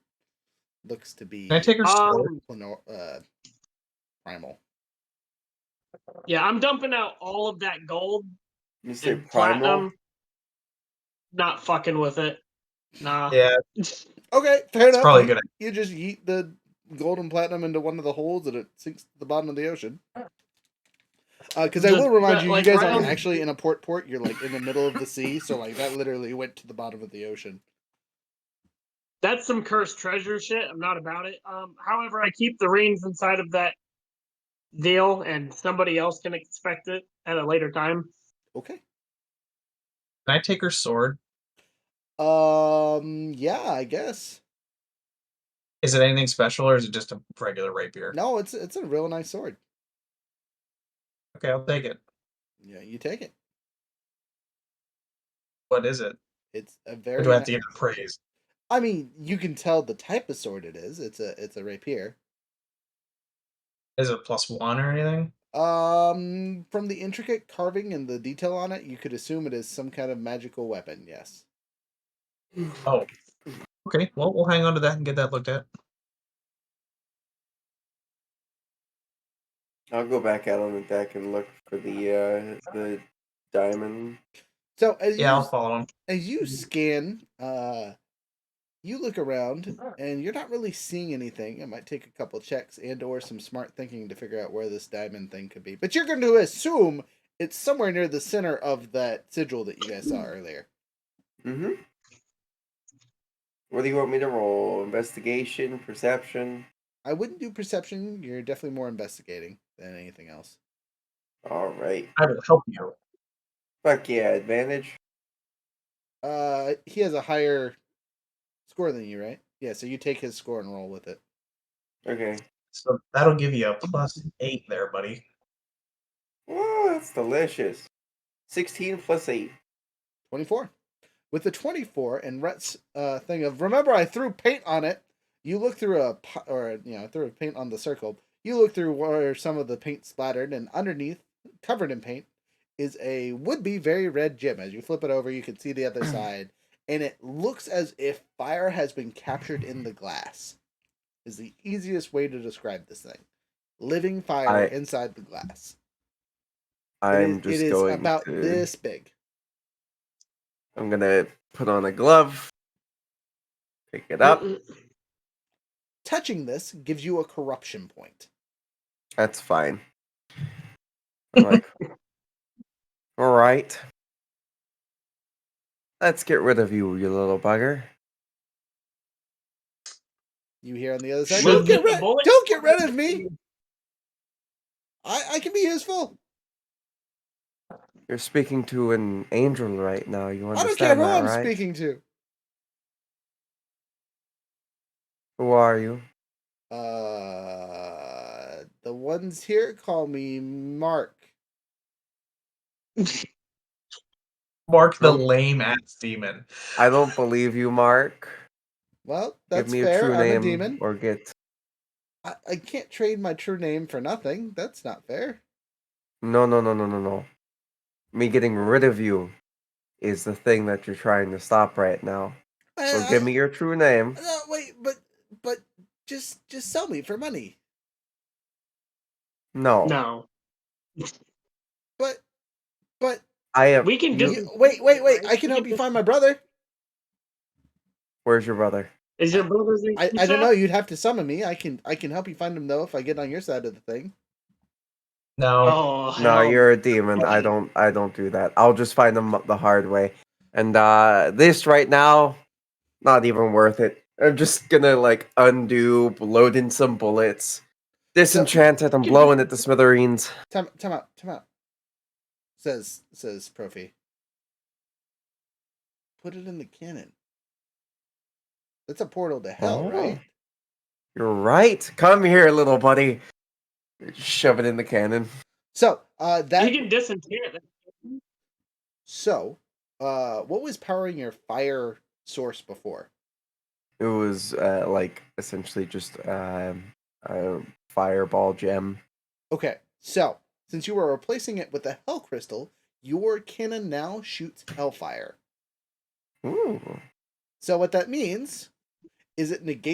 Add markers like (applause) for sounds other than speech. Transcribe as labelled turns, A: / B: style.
A: looks to be
B: Can I take her?
C: Um,
B: sword?
A: plano- uh, primal.
C: Yeah, I'm dumping out all of that gold
D: You say
C: and
D: primal?
C: platinum. Not fucking with it. Nah.
B: yeah,
A: Okay, fair
B: it's
A: enough.
B: probably a
A: you,
B: good.
A: you just yeet the gold and platinum into one of the holes and it sinks to the bottom of the ocean. Because I
C: Just
A: will remind
C: that,
A: you,
C: like,
A: you guys aren't
C: round-
A: actually in a port port. You're like in the middle of the sea, so like that literally went to the bottom of the ocean.
C: (laughs) That's some cursed treasure shit. I'm not about it. Um, however, I keep the reins inside of that deal, and somebody else can expect it at a later time.
A: Okay.
B: Can I take her sword?
A: Um. Yeah, I guess.
B: Is it anything special, or is it just a regular rapier?
A: No, it's it's a real nice sword.
B: Okay, I'll take it.
A: Yeah, you take it.
B: What is it?
A: It's a
B: Or
A: very.
B: do I have
A: ni-
B: to give it praise?
A: I mean, you can tell the type of sword it is. It's a it's a rapier.
B: Is it plus one or anything?
A: Um, from the intricate carving and the detail on it, you could assume it is some kind of magical weapon. Yes.
B: Oh, okay. Well, we'll hang on to that and get that looked at.
D: I'll go back out on the deck and look for the uh, the diamond.
A: So as
B: Yeah, I'll Mm-hmm.
A: you
B: follow him.
A: as you scan, uh, you look around and you're not really seeing anything. It might take a couple checks and or some smart thinking to figure out where this diamond thing could be. But you're going to assume it's somewhere near the center of that sigil that you guys saw
B: Mm.
A: earlier.
D: Mm-hmm. What do you want me to roll? Investigation, perception.
A: I wouldn't do perception. You're definitely more investigating than anything else.
D: All right.
B: I will help you.
D: Fuck yeah, advantage.
A: Uh, he has a higher score than you, right? Yeah, so you take his score and roll with it.
D: Okay.
B: So that'll give you a plus eight there, buddy.
D: Oh, that's delicious. Sixteen plus eight.
A: 24. With the 24 and Rhett's uh, thing of remember I threw paint on it. You look through a po- or you know, I threw paint on the circle. You look through where some of the paint splattered and underneath, covered in paint, is a would be very red gem. As you flip it over, you can see the
D: (clears throat)
A: other side and it looks as if fire has been captured in the glass. Is the easiest way to describe this thing. Living fire
D: I-
A: inside the glass. It
D: I'm
A: is-
D: just
A: it is
D: going
A: about
D: to.
A: this big.
D: I'm gonna put on a glove. Pick it up.
A: Touching this gives you a corruption point.
D: That's fine. I'm like,
A: (laughs)
D: all right. Let's get rid of you, you little bugger.
A: You hear on the other side.
C: Shoot
A: Don't get
C: the
A: rid.
C: bullet."
A: Don't get rid of me. I I can be useful.
D: You're speaking to an angel right now. You
A: I don't care
D: understand
A: who
D: that,
A: I'm
D: right?
A: speaking to.
D: Who are you?
A: Uh, the ones here call me Mark.
B: Mark the
D: Nope.
B: lame ass demon.
D: I don't believe you, Mark.
A: Well, that's
D: Give me
A: fair.
D: a true
A: I'm
D: name
A: a demon.
D: or get.
A: I, I can't trade my true name for nothing. That's not fair.
D: No, no, no, no, no, no. Me getting rid of you is the thing that you're trying to stop right now.
A: I-
D: So
A: I-
D: give me your true name.
A: No, Uh, wait, but but just just sell me for money.
D: No,
C: No,
A: But but
D: I am.
C: we can
D: you-
C: do.
A: you- wait wait wait. I can help you find my brother.
D: Where's your brother?
C: Is your brother's?
A: I, I don't know. You'd have to summon me. I can I can help you find him though if I get on your side of the thing.
B: No,
C: Oh
D: No,
C: hell.
D: you're a demon. I don't. I don't do that. I'll just find them the hard way. And uh this right now, not even worth it. I'm just gonna like undo, load in some bullets, disenchant it. I'm blowing it to smithereens.
A: Time time out time out. Says says Profi. Put it in the cannon. That's a portal to hell,
D: Oh.
A: right?
D: You're right. Come here, little buddy. Shove it in the cannon.
A: So uh that
C: you can disenchant. it.
A: so uh what was powering your fire source before?
D: It was uh like essentially just um a fireball gem.
A: Okay, so since you were replacing it with a hell crystal, your cannon now shoots hellfire.
D: Ooh.
A: So what that means is it negates